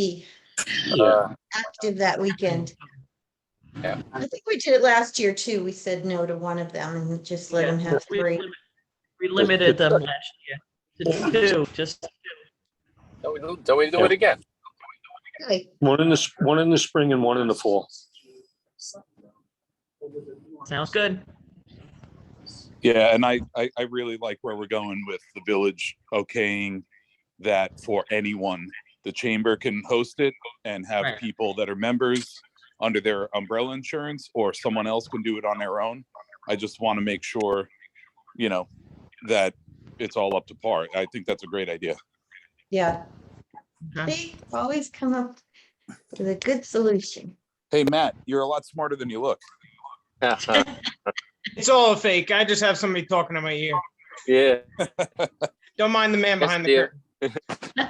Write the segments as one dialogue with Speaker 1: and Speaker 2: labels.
Speaker 1: be
Speaker 2: Yeah.
Speaker 1: active that weekend.
Speaker 2: Yeah.
Speaker 1: I think we did it last year too. We said no to one of them and just let
Speaker 3: Yeah,
Speaker 1: them have
Speaker 3: we
Speaker 1: three.
Speaker 3: limit- We limited them last year to two, just,
Speaker 2: Then we do- then we do it again.
Speaker 1: Okay,
Speaker 4: One in the, s- one in the spring and one in the fall.
Speaker 3: sounds good.
Speaker 5: Yeah, and I, I, I really like where we're going with the village okaying that for anyone. The chamber can host it and have
Speaker 3: Right.
Speaker 5: people that are members under their umbrella insurance, or someone else can do it on their own. I just want to make sure, you know, that it's all up to par. I think that's a great idea.
Speaker 1: yeah.
Speaker 3: Okay.
Speaker 1: They always come up with a good solution.
Speaker 5: Hey, Matt, you're a lot smarter than you look.
Speaker 6: It's all a fake. I just have somebody talking in my ear.
Speaker 2: Yeah.
Speaker 6: Don't mind the man behind the
Speaker 2: dear.
Speaker 6: curtain.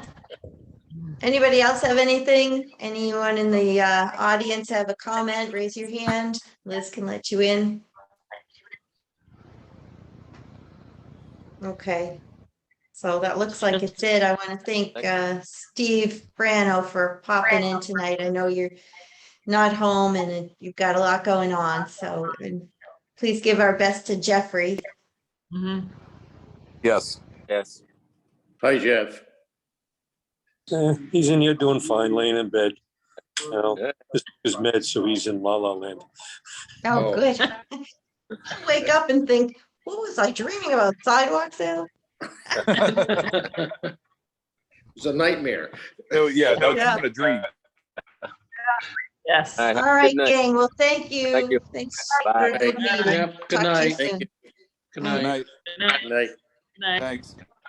Speaker 1: Anybody else have anything? Anyone in the uh, audience have a comment? Raise your hand. Liz can let you in. Okay. So that looks like it's it. I want to thank uh, Steve Brano for popping in tonight. I know you're not home and you've got a lot going on, so and please give our best to Jeffrey.
Speaker 3: Mhm.
Speaker 2: Mm-hmm.
Speaker 5: Yes.
Speaker 2: Yes.
Speaker 7: Hi, Jeff.
Speaker 4: Eh, He's in here doing fine, laying in bed. You know,
Speaker 2: Yeah.
Speaker 4: this is med, so he's in la la land.
Speaker 1: Oh,
Speaker 7: Oh.
Speaker 1: good. Wake up and think, what was I dreaming about? Sidewalk sale?
Speaker 5: Oh,
Speaker 7: It's a nightmare.
Speaker 5: Oh, yeah, that was
Speaker 3: Yeah.
Speaker 5: kind of dream.
Speaker 3: Yes.
Speaker 2: All right, have a
Speaker 1: All right,
Speaker 2: good night.
Speaker 1: gang. Well, thank you.
Speaker 2: Thank you.
Speaker 1: Thanks.
Speaker 2: Bye.
Speaker 1: for the meeting.
Speaker 7: Jeff,
Speaker 1: Talk to
Speaker 7: good
Speaker 1: you
Speaker 7: night.
Speaker 1: soon.
Speaker 7: Good
Speaker 5: Good night.
Speaker 3: Good night.
Speaker 7: Night.
Speaker 3: Good night.
Speaker 5: Thanks.